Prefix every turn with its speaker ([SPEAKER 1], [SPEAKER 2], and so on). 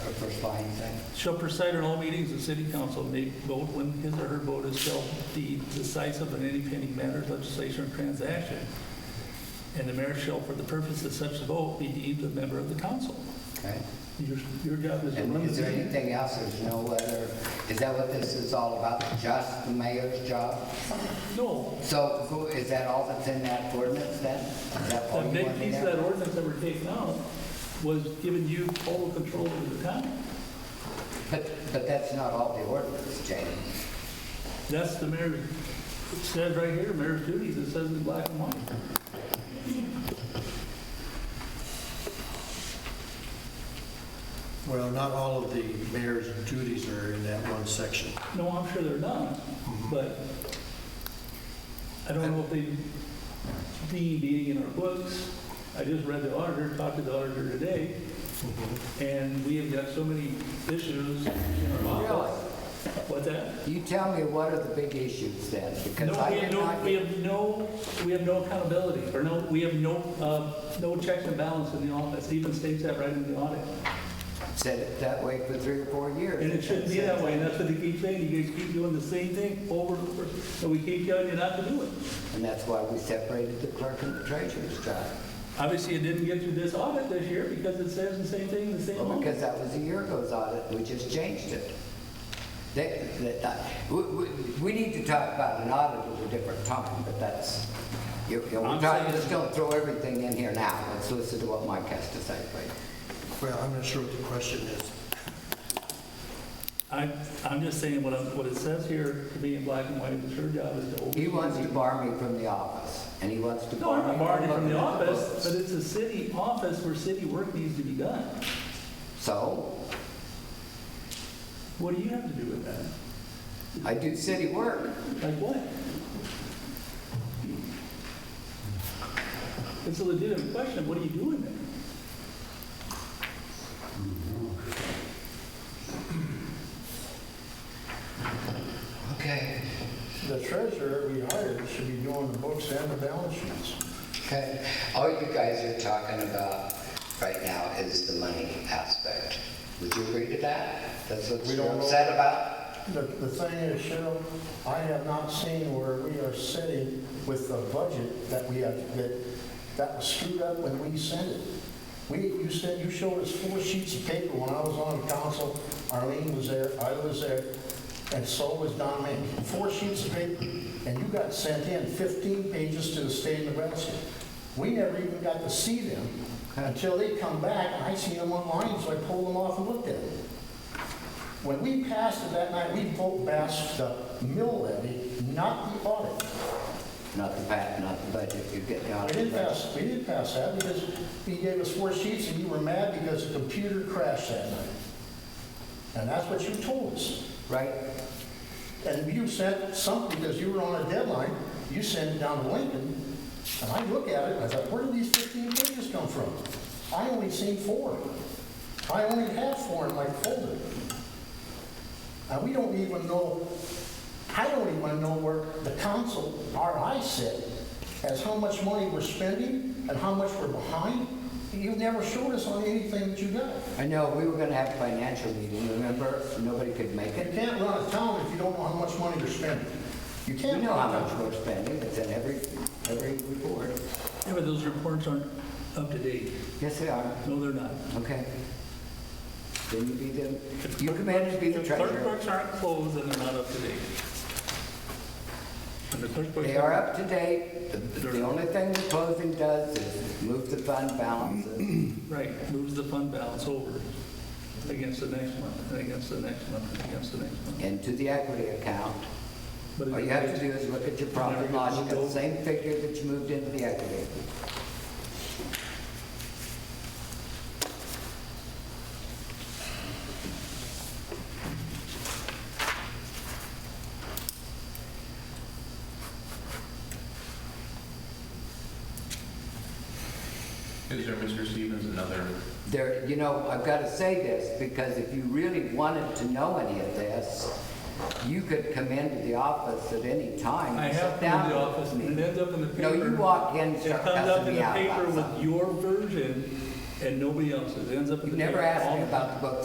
[SPEAKER 1] personifying thing.
[SPEAKER 2] Shall preside at all meetings of city council, may vote when his or her vote is shall be decisive in any pending matters, legislation, or transaction. And the mayor shall, for the purpose of such vote, be deemed a member of the council.
[SPEAKER 1] Okay.
[SPEAKER 2] Your, your job is to
[SPEAKER 1] And
[SPEAKER 2] run
[SPEAKER 1] is
[SPEAKER 2] the
[SPEAKER 1] there
[SPEAKER 2] meeting.
[SPEAKER 1] anything else? There's no other, is that what this is all about? Just the mayor's job?
[SPEAKER 2] No,
[SPEAKER 1] So who- is that all that's in that ordinance then? Is that all
[SPEAKER 2] the
[SPEAKER 1] Oh, you
[SPEAKER 2] big
[SPEAKER 1] want in
[SPEAKER 2] piece of
[SPEAKER 1] there?
[SPEAKER 2] that ordinance that we're taking out was giving you total control over the town.
[SPEAKER 1] But, but that's not all the ordinance, James.
[SPEAKER 2] That's the mayor, it says right here, mayor's duties, it says in black and white.
[SPEAKER 3] Well, not all of the mayor's duties are in that one section.
[SPEAKER 2] No, I'm sure they're not, but I don't know if they, be being in our books, I just read the auditor, talked to the auditor today, and we have got so many issues in our office. What's that?
[SPEAKER 1] You tell me what are the big issues then? Because
[SPEAKER 2] No,
[SPEAKER 1] I
[SPEAKER 2] we have
[SPEAKER 1] did
[SPEAKER 2] no,
[SPEAKER 1] not
[SPEAKER 2] we
[SPEAKER 1] get
[SPEAKER 2] have no, we have no accountability, or no, we have no, uh, no checks and balance in the office, even states that right in the audit.
[SPEAKER 1] said it that way for three or four years.
[SPEAKER 2] And it shouldn't be that way, and that's what they keep saying, you guys keep doing the same thing over and over, and we keep telling you not to do it.
[SPEAKER 1] And that's why we separated the clerk and the treasurer's job.
[SPEAKER 2] Obviously, it didn't get through this audit this year because it says the same thing, the same
[SPEAKER 1] Well,
[SPEAKER 2] amount.
[SPEAKER 1] because that was a year ago's audit, we just changed it. They- that- that- we, we, we need to talk about an audit at a different time, but that's, you, you know,
[SPEAKER 2] I'm
[SPEAKER 1] we're talking,
[SPEAKER 2] saying-
[SPEAKER 1] just don't throw everything in here now. Let's listen to what Mike has to say, please.
[SPEAKER 3] Well, I'm not sure what the question is.
[SPEAKER 2] I, I'm just saying what, I'm- what it says here, to be in black and white, it's your job is to oversee.
[SPEAKER 1] He wants to bar me from the office, and he wants to
[SPEAKER 2] No,
[SPEAKER 1] bar
[SPEAKER 2] I'm
[SPEAKER 1] me
[SPEAKER 2] not
[SPEAKER 1] from
[SPEAKER 2] barring from
[SPEAKER 1] looking
[SPEAKER 2] the
[SPEAKER 1] at the
[SPEAKER 2] office, but
[SPEAKER 1] books.
[SPEAKER 2] it's a city office where city work needs to be done.
[SPEAKER 1] So,
[SPEAKER 2] What do you have to do with that?
[SPEAKER 1] I do city work.
[SPEAKER 2] Like what? It's a legitimate question, what are you doing there?
[SPEAKER 1] Okay.
[SPEAKER 4] The treasurer we hired should be doing the books and the balance sheets.
[SPEAKER 1] Okay, all you guys are talking about right now is the money aspect. Would you agree to that? That's what
[SPEAKER 4] We
[SPEAKER 1] you're
[SPEAKER 4] don't know.
[SPEAKER 1] upset about?
[SPEAKER 4] The, the thing is, Cheryl, I have not seen where we are sitting with the budget that we have, that, that was screwed up when we sent it. We, you said, you showed us four sheets of paper when I was on council, Arlene was there, I was there, and so was Don Mink. Four sheets of paper, and you got sent in fifteen pages to the state of Nebraska. We never even got to see them until they come back, and I seen them online, so I pulled them off and looked at them. When we passed it that night, we vote passed the mill levy, not the audit.
[SPEAKER 1] Not the bat, not the budget, you're getting out
[SPEAKER 4] We
[SPEAKER 1] of the
[SPEAKER 4] didn't
[SPEAKER 1] budget.
[SPEAKER 4] pass, we didn't pass that because he gave us four sheets and you were mad because the computer crashed that night. And that's what you told us.
[SPEAKER 1] Right,
[SPEAKER 4] And you sent something, because you were on a deadline, you sent it down to Lincoln. And I look at it and I thought, where did these 15 pages come from? I only seen four. I only have four in my folder. And we don't even know, I don't even know where the council, or I sit, as how much money we're spending and how much we're behind. You've never showed us on anything that you got.
[SPEAKER 1] I know, we were gonna have a financial meeting, remember? Nobody could make
[SPEAKER 4] You
[SPEAKER 1] it.
[SPEAKER 4] can't run a town if you don't know how much money you're spending. You
[SPEAKER 1] We
[SPEAKER 4] can't.
[SPEAKER 1] know how
[SPEAKER 4] run a town.
[SPEAKER 1] much we're spending, it's in every, every report.
[SPEAKER 2] Yeah, but those reports aren't up to date.
[SPEAKER 1] Yes, they are,
[SPEAKER 2] No, they're not.
[SPEAKER 1] okay. Then you be the, you commanded to be the
[SPEAKER 2] If Clerk
[SPEAKER 1] treasurer.
[SPEAKER 2] books aren't closed, and they're not up to date. And the clerk books.
[SPEAKER 1] They are up to date. The- The only thing the closing does is move the fund balances.
[SPEAKER 2] Right, moves the fund balance over against the next month, and against the next month, and against the next month.
[SPEAKER 1] into the equity account.
[SPEAKER 2] But
[SPEAKER 1] All
[SPEAKER 2] it-
[SPEAKER 1] you have to do is look at your profit and loss, you got the same figure that you moved into the equity.
[SPEAKER 5] Is there, Mr. Stevens, another,
[SPEAKER 1] There, you know, I've got to say this, because if you really wanted to know any of this, you could come into the office at any time.
[SPEAKER 2] I
[SPEAKER 1] and
[SPEAKER 2] have
[SPEAKER 1] sit
[SPEAKER 2] been
[SPEAKER 1] down
[SPEAKER 2] in the
[SPEAKER 1] with
[SPEAKER 2] office, and
[SPEAKER 1] me.
[SPEAKER 2] it ends up in the paper.
[SPEAKER 1] No, you walk in, and
[SPEAKER 2] It
[SPEAKER 1] start
[SPEAKER 2] comes up
[SPEAKER 1] cussing
[SPEAKER 2] in
[SPEAKER 1] me
[SPEAKER 2] the
[SPEAKER 1] out
[SPEAKER 2] paper
[SPEAKER 1] about
[SPEAKER 2] with
[SPEAKER 1] something.
[SPEAKER 2] your version and nobody else's. It ends up
[SPEAKER 1] You
[SPEAKER 2] in the paper.
[SPEAKER 1] never asked
[SPEAKER 2] all
[SPEAKER 1] me
[SPEAKER 2] the time.
[SPEAKER 1] about the book